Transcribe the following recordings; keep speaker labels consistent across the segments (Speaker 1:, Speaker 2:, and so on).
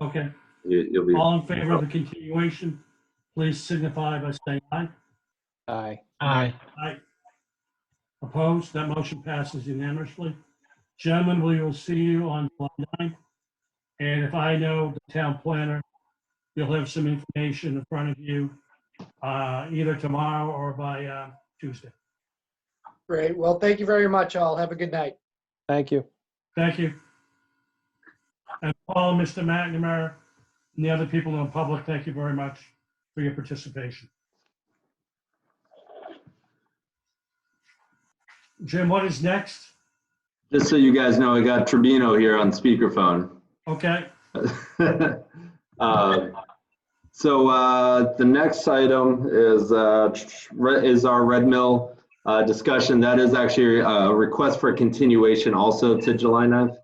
Speaker 1: Okay,
Speaker 2: You- You'll be,
Speaker 1: all in favor of the continuation, please signify by saying aye.
Speaker 3: Aye.
Speaker 4: Aye.
Speaker 1: Aye. Opposed? That motion passes unanimously. Gentlemen, we will see you on July 9th. And if I know the town planner, you'll have some information in front of you, uh, either tomorrow or by uh, Tuesday.
Speaker 5: Great. Well, thank you very much, all. Have a good night.
Speaker 3: Thank you.
Speaker 1: Thank you. And Paul, Mr. McNamara, and the other people in the public, thank you very much for your participation. Jim, what is next?
Speaker 2: just so you guys know, I got Tribino here on speakerphone.
Speaker 1: Okay,
Speaker 2: Uh, So uh, the next item is, uh, re- is our Red Mill uh, discussion. That is actually uh, a request for continuation also to July 9th.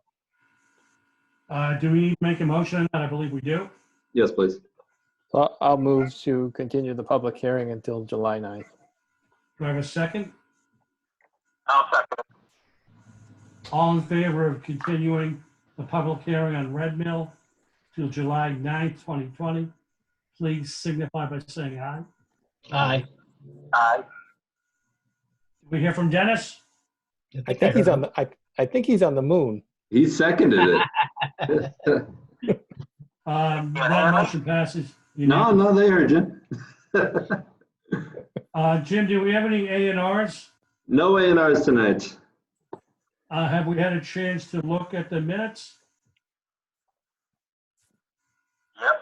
Speaker 1: uh, do we need to make a motion? on that? I believe we do.
Speaker 2: Yes, please.
Speaker 3: I'll I'll move to continue the public hearing until July 9th.
Speaker 1: Do I have a second?
Speaker 6: I'll second.
Speaker 1: All in favor of continuing the public hearing on Red Mill till July 9th, 2020? Please signify by saying aye.
Speaker 4: Aye.
Speaker 6: Aye.
Speaker 1: Did We hear from Dennis?
Speaker 3: I think he's on, the. I I think he's on the moon.
Speaker 2: He seconded it.
Speaker 1: Um, That motion passes.
Speaker 2: No,
Speaker 1: unanimously.
Speaker 2: no, they heard you.
Speaker 1: Uh, Jim, do we have any A and Rs?
Speaker 2: No A and Rs tonight.
Speaker 1: Uh, Have we had a chance to look at the minutes?
Speaker 6: Yep,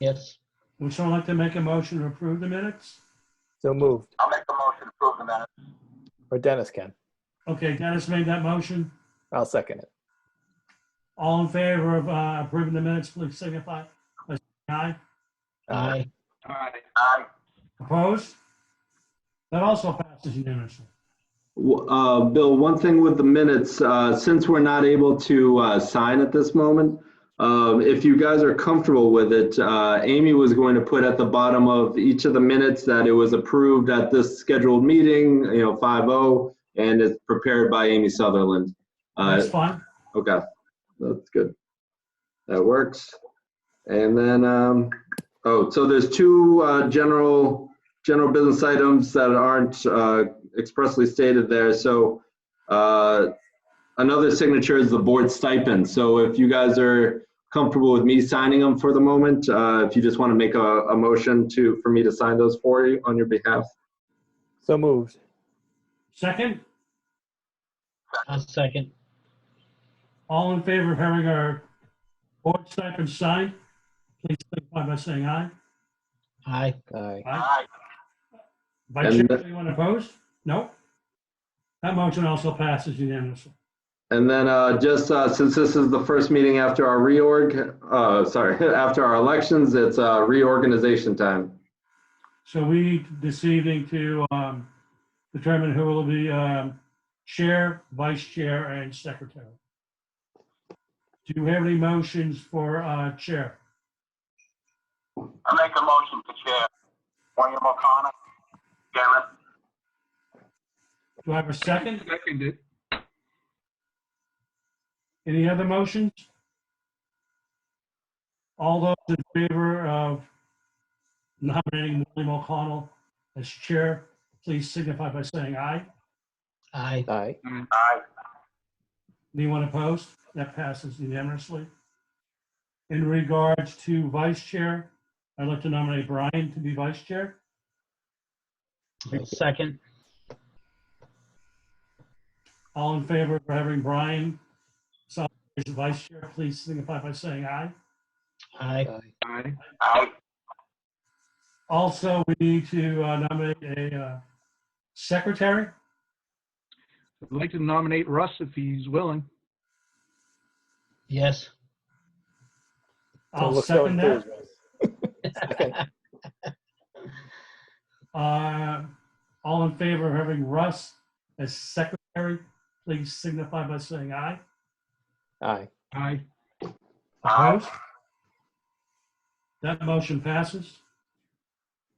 Speaker 4: Yes.
Speaker 1: Would someone like to make a motion to approve the minutes?
Speaker 3: So moved.
Speaker 6: I'll make a motion to approve the minutes.
Speaker 3: Or Dennis can.
Speaker 1: Okay, Dennis made that motion.
Speaker 3: I'll second it.
Speaker 1: All in favor of uh, approving the minutes, please signify by saying aye.
Speaker 3: Uh,
Speaker 4: Aye.
Speaker 6: Aye.
Speaker 1: Opposed? That also passes unanimously.
Speaker 2: W- uh, Bill, one thing with the minutes, uh, since we're not able to uh, sign at this moment, um, if you guys are comfortable with it, uh, Amy was going to put at the bottom of each of the minutes that it was approved at this scheduled meeting, you know, 5-0, and it's prepared by Amy Sutherland. Uh,
Speaker 1: That's fine.
Speaker 2: Okay, that's good. That works. And then, um, oh, so there's two, uh, general, general business items that aren't, uh, expressly stated there. So, uh, another signature is the board stipend. So if you guys are comfortable with me signing them for the moment, uh, if you just want to make a, a motion to, for me to sign those for you on your behalf.
Speaker 3: So moved.
Speaker 1: Second,
Speaker 4: I'll second.
Speaker 1: all in favor of having our board stipend signed, please signify by saying aye.
Speaker 4: Aye.
Speaker 3: Aye.
Speaker 6: Aye.
Speaker 1: Vice
Speaker 2: And-
Speaker 1: Chair, anyone opposed? No? That motion also passes unanimously.
Speaker 2: And then uh, just uh, since this is the first meeting after our reorg, uh, sorry, after our elections, it's uh, reorganization time.
Speaker 1: So we need this evening to um, determine who will be um, chair, vice chair, and secretary. Do you have any motions for uh, chair?
Speaker 6: I'll make a motion to chair. William O'Connor, chairman.
Speaker 1: Do I have a second? Any other motions? All those in favor of nominating William O'Connell as chair, please signify by saying aye.
Speaker 4: Aye.
Speaker 3: Aye.
Speaker 6: Aye.
Speaker 1: Anyone opposed? That passes unanimously. In regards to vice chair, I'd like to nominate Brian to be vice chair.
Speaker 4: I'll second.
Speaker 1: All in favor of having Brian Solomon as vice chair, please signify by saying aye.
Speaker 4: Aye.
Speaker 6: Aye.
Speaker 1: Also, we need to uh, nominate a uh, secretary.
Speaker 7: I'd like to nominate Russ if he's willing.
Speaker 4: Yes.
Speaker 3: Don't
Speaker 1: I'll
Speaker 3: look so
Speaker 1: second that.
Speaker 3: enthused.
Speaker 1: Uh, All in favor of having Russ as secretary, please signify by saying aye.
Speaker 3: Aye.
Speaker 7: Aye.
Speaker 6: Aye.
Speaker 1: Opposed? That motion passes.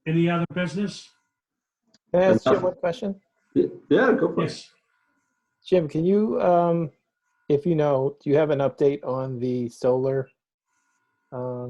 Speaker 1: Any other business?
Speaker 3: Can I ask Jim one question?
Speaker 2: Yeah, go for it.
Speaker 1: Yes.
Speaker 3: Jim, can you, um, if you know, do you have an update on the solar Uh,